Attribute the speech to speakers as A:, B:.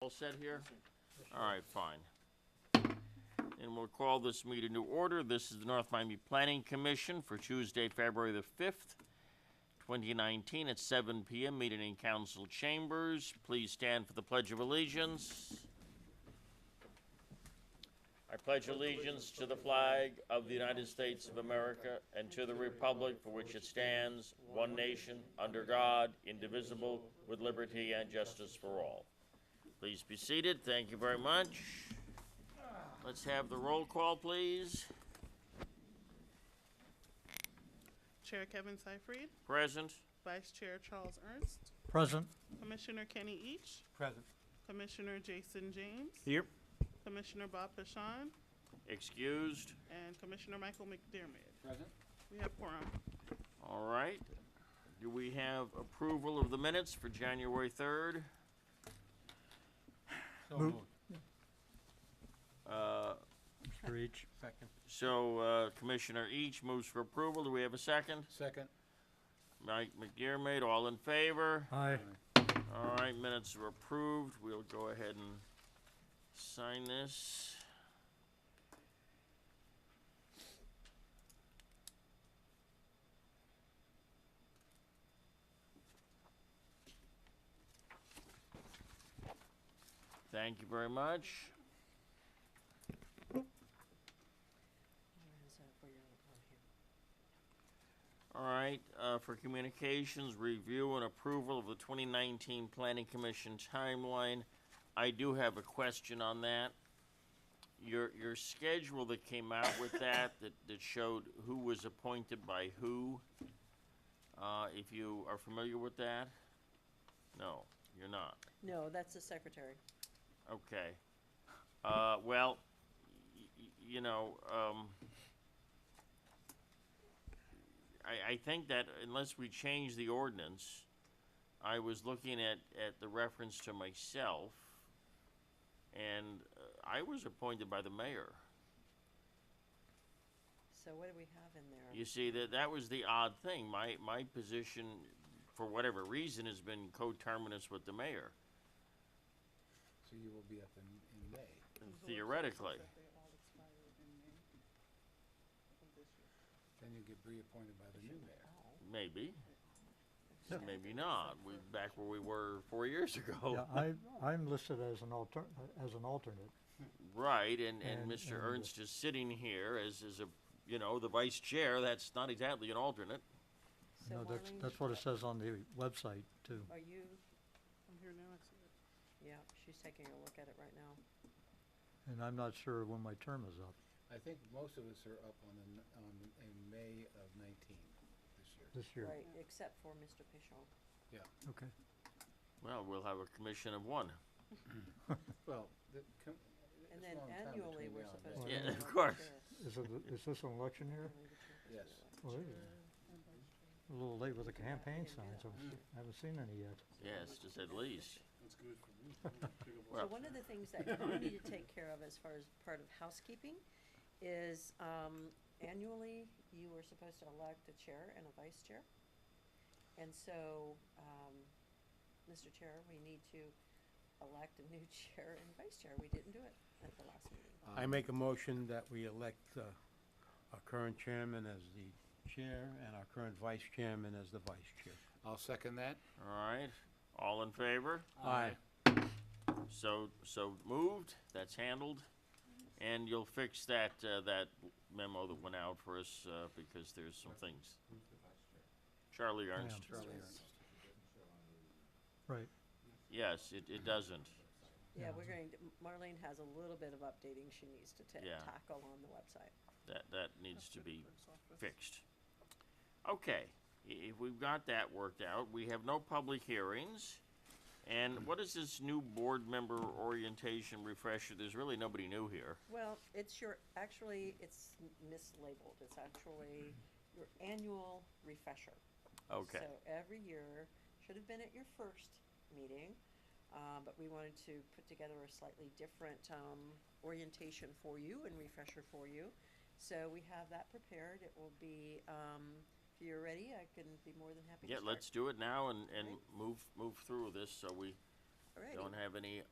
A: All set here? All right, fine. And we'll call this meeting to order. This is the North Miami Planning Commission for Tuesday, February the fifth, twenty nineteen, at seven PM, meeting in council chambers. Please stand for the Pledge of Allegiance. I pledge allegiance to the flag of the United States of America and to the republic for which it stands, one nation, under God, indivisible, with liberty and justice for all. Please be seated. Thank you very much. Let's have the roll call, please.
B: Chair Kevin Seifried,
A: Present.
B: Vice Chair Charles Ernst,
C: Present.
B: Commissioner Kenny Each,
C: Present.
B: Commissioner Jason James,
C: Here.
B: Commissioner Bob Pashon,
A: Excused.
B: and Commissioner Michael McDermott.
C: Present.
B: We have quorum.
A: All right. Do we have approval of the minutes for January 3rd?
C: So
D: Move.
C: moved.
A: Uh,
C: For each. Second.
A: So uh, Commissioner Each moves for approval. Do we have a second?
C: Second.
A: Mike McDermott, all in favor?
D: Aye.
A: All right, minutes are approved. We'll go ahead and sign this. Thank you very much. All right, uh, for communications, review and approval of the twenty nineteen planning commission timeline. I do have a question on that. Your, your schedule that came out with that, that, that showed who was appointed by who, uh, if you are familiar with that? No, you're not.
E: No, that's the secretary.
A: Okay. Uh, well, y- y- you know, um, I, I think that unless we change the ordinance, I was looking at, at the reference to myself, and uh, I was appointed by the mayor.
E: So what do we have in there?
A: You see, that, that was the odd thing. My, my position, for whatever reason, has been coterminous with the mayor,
C: So you will be up in, in May.
A: theoretically.
C: Then you get reappointed by the new mayor.
A: Maybe. Maybe not. We, back where we were four years
D: Yeah,
A: ago.
D: I, I'm listed as an alter, as an alternate.
A: Right, and, and
D: And-
A: Mr.
D: and-
A: Ernst is sitting here as, as a, you know, the vice chair. That's not exactly an alternate.
E: So
D: No, that's,
E: Maureen,
D: that's what it says on the website too.
E: Are you,
B: I'm here now, I see it.
E: yeah, she's taking a look at it right now.
D: And I'm not sure when my term is up
C: I think most of us are up on the, n- on, in May of nineteen this year.
D: this year.
E: Right, except for Mr. Pichon.
D: Okay.
A: Well, we'll have a commission of one.
C: Well, the, com- it's
E: And then
C: a long time
E: annually,
C: between
E: we're
C: now and
E: supposed
D: then.
E: to.
A: Yeah,
E: have
A: of
E: another
A: course.
E: chair.
D: Is it, the- is this an election year?
E: Only the chair gets to
C: Yes.
E: elect.
D: Well, it is. A little late with the campaign
E: Yeah,
D: signs.
E: yeah.
D: I'm- I haven't seen any yet.
A: Yes, just at least.
C: That's good for me.
E: So
A: Well,
E: one of the things that you need to take care of as far as part of housekeeping is um, annually, you are supposed to elect a chair and a vice chair. And so, um, Mr. Chair, we need to elect a new chair and vice chair. We didn't do it at the last meeting.
F: I make a motion that we elect uh, our current chairman as the chair and our current vice chairman as the vice chair.
C: I'll second that.
A: all right. All in favor?
F: Aye.
A: So, so moved. That's handled. And you'll fix that, uh, that memo that went out for us, uh, because there's some things. Charlie Ernst.
C: Charlie Ernst.
D: Right.
A: Yes, it, it doesn't.
E: Yeah,
D: Yeah.
E: we're going, to- Marlene has a little bit of updating she needs to ta-
A: Yeah.
E: tackle on the website.
A: That, that needs to
B: After the
A: be
B: clerk's office.
A: fixed. Okay, i- if we've got that worked out, we have no public hearings. And what is this new board member orientation refresher? There's really nobody new here.
E: Well, it's your, actually, it's m- mislabeled. It's actually your annual refresher.
A: Okay,
E: So every year, should have been at your first meeting, uh, but we wanted to put together a slightly different, um, orientation for you and refresher for you. So we have that prepared. It will be, um, if you're ready, I can be more than happy to
A: yeah,
E: start.
A: let's do it now and, and
E: Right.
A: move, move through this so we
E: Alrighty.
A: don't have any